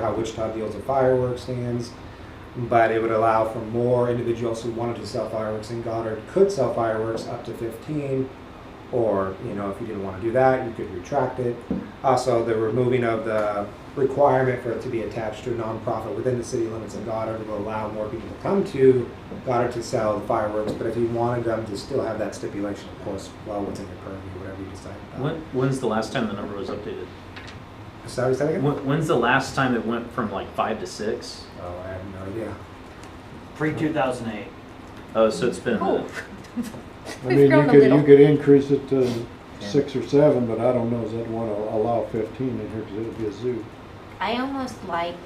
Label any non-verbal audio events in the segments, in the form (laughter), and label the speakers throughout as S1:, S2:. S1: how Wichita deals with fireworks stands, but it would allow for more individuals who wanted to sell fireworks in Goddard could sell fireworks up to 15. Or, you know, if you didn't want to do that, you could retract it. Also, the removing of the requirement for it to be attached to a nonprofit within the city limits of Goddard will allow more people to come to Goddard to sell fireworks. But if you wanted them to still have that stipulation, of course, well, what's in your purview, whatever you decide about.
S2: When, when's the last time the number was updated?
S1: Sorry, say that again?
S2: When, when's the last time it went from like five to six?
S1: Oh, I have no idea.
S3: Pre two thousand eight.
S2: Oh, so it's been. a minute.
S4: We've
S5: I mean, you
S4: grown a
S5: could,
S4: little.
S5: you could increase it to six or seven, but I don't know if they'd wanna allow fifteen in here, cause it'd be a zoo.
S4: I almost like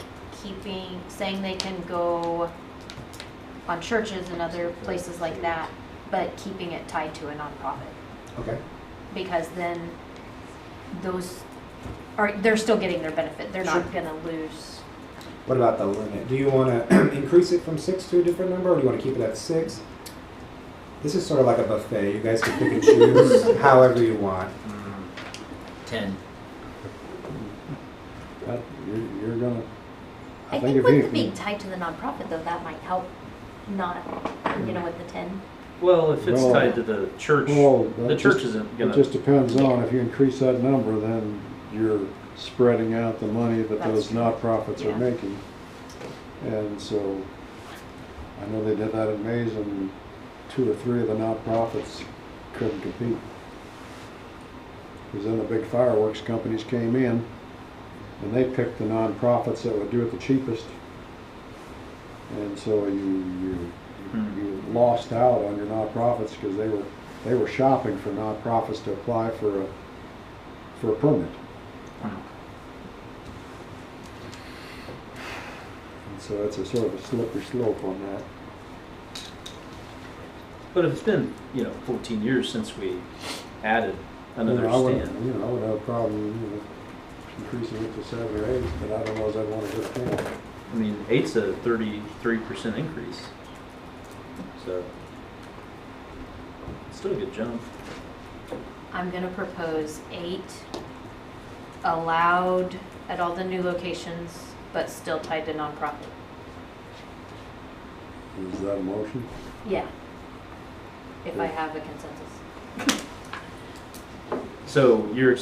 S4: keeping, saying they can go on churches and other places like that, but keeping it tied to a nonprofit.
S1: Okay.
S4: Because then those are, they're still getting their benefit. They're not gonna lose.
S1: What about the limit? Do you want to (clears throat) increase it from six to a different number, or do you want to keep it at six? This is sort of like a buffet. You guys can pick and choose
S4: (laughs)
S1: however you want.
S2: Mm.
S3: Ten.
S5: That- You're, you're gonna,
S4: I
S5: I
S4: think
S5: think if
S4: with
S5: you
S4: it being
S5: can-
S4: tied to the nonprofit though, that might help not, you know, with the ten.
S2: Well, if it's
S5: Well-
S2: tied to the church,
S5: well,
S2: the
S5: that
S2: church
S5: just-
S2: isn't
S5: it
S2: gonna.
S5: just depends on, if you increase that number, then you're spreading out the money that
S4: That's
S5: those
S4: true.
S5: nonprofits
S4: Yeah.
S5: are making. And so, I know they did that in Mays and two or three of the nonprofits couldn't compete. Cause then the big fireworks companies came in and they picked the nonprofits that would do it the cheapest. And so you, you,
S2: Hmm.
S5: you lost out on your nonprofits because they were, they were shopping for nonprofits to apply for a, for a permit.
S2: Mm.
S5: And so it's a sort of a slippery slope on that.
S2: But if it's been, you know, 14 years since we added
S5: You
S2: another
S5: know, I wouldn't-
S2: stand.
S5: You know, I would have a problem, you know, increasing it to seven or eight, but I don't know if I'd want to go to ten.
S2: I mean, eight's a 33% increase. So, still a good jump.
S4: I'm gonna propose eight allowed at all the new locations, but still tied to nonprofit.
S5: Is that a motion?
S4: Yeah. If I have a consensus.
S2: So you're,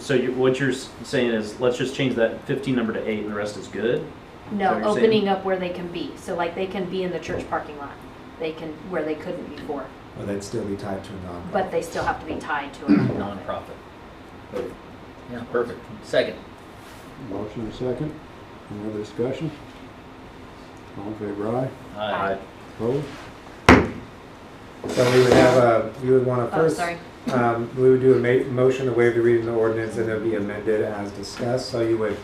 S2: so you what you're s- saying is, let's just change that 15 number to eight and the rest is good?
S4: No,
S2: what you're saying?
S4: opening up where they can be. So like they can be in the church parking lot. They can, where they couldn't before,
S1: Or they'd still be tied to a nonprofit.
S4: but they still have to be tied to a nonprofit.
S3: Nonprofit. Yeah, perfect. Second.
S5: Motion and second. Any other discussion? All in favor, aye.
S4: Aye.
S5: Opposed?
S1: So we would have a. You would want to
S4: Oh,
S1: first.
S4: sorry.
S1: Um, we would do a ma- motion to waive the reading of the ordinance and it would be amended as discussed. So you would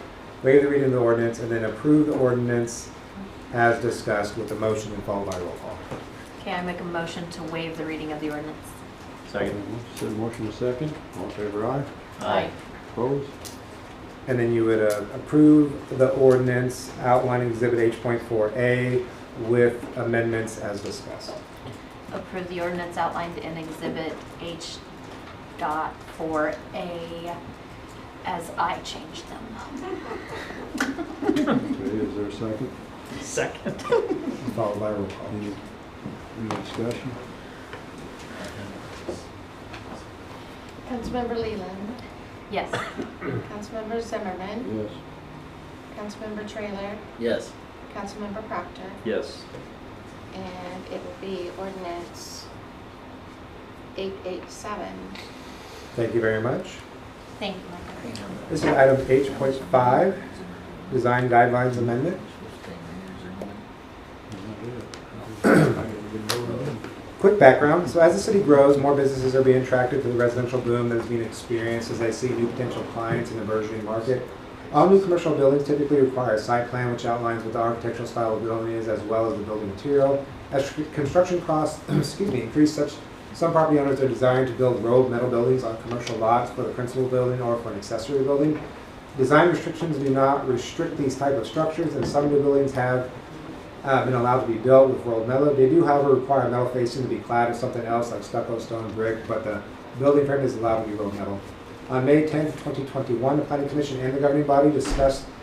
S1: waive the reading of the ordinance and then approve the ordinance as discussed with the motion and followed by roll call.
S4: Okay, I make a motion to waive the reading of the ordinance.
S2: Second.
S5: Said motion and second. All in favor, aye.
S3: Aye.
S5: Opposed?
S1: And then you would uh, approve the ordinance outlining Exhibit H.4A with amendments as discussed.
S4: Approve the ordinance outlined in Exhibit H dot four A as I changed them.
S5: Okay, is there a second?
S2: Second.
S1: Followed by roll call.
S5: Any, any discussion?
S6: Councilmember Leland,
S4: Yes.
S6: Councilmember Zimmerman,
S5: Yes.
S6: Councilmember Trailer,
S3: Yes.
S6: Councilmember Proctor,
S2: Yes.
S6: and it will be ordinance eight eight seven.
S1: Thank you very much.
S4: Thank you, Michael.
S1: This is item H.5, Design Guidelines Amendment. Quick background, so as the city grows, more businesses are being attracted to the residential boom that is being experienced as they see new potential clients in the burgeoning market. All new commercial buildings typically require a site plan which outlines what the architectural style of the building is as well as the building material. As tr- construction costs, (clears throat) excuse me, increase such, some property owners are designed to build rolled metal buildings on commercial lots for the principal building or for an accessory building. Design restrictions do not restrict these type of structures and some new buildings have uh, been allowed to be built with rolled metal. They do, however, require metal facing to be clad with something else like stucco, stone, brick, but the building frame is allowed to be rolled metal. On May 10th, 2021, the Planning Commission and the governing body discussed (coughs)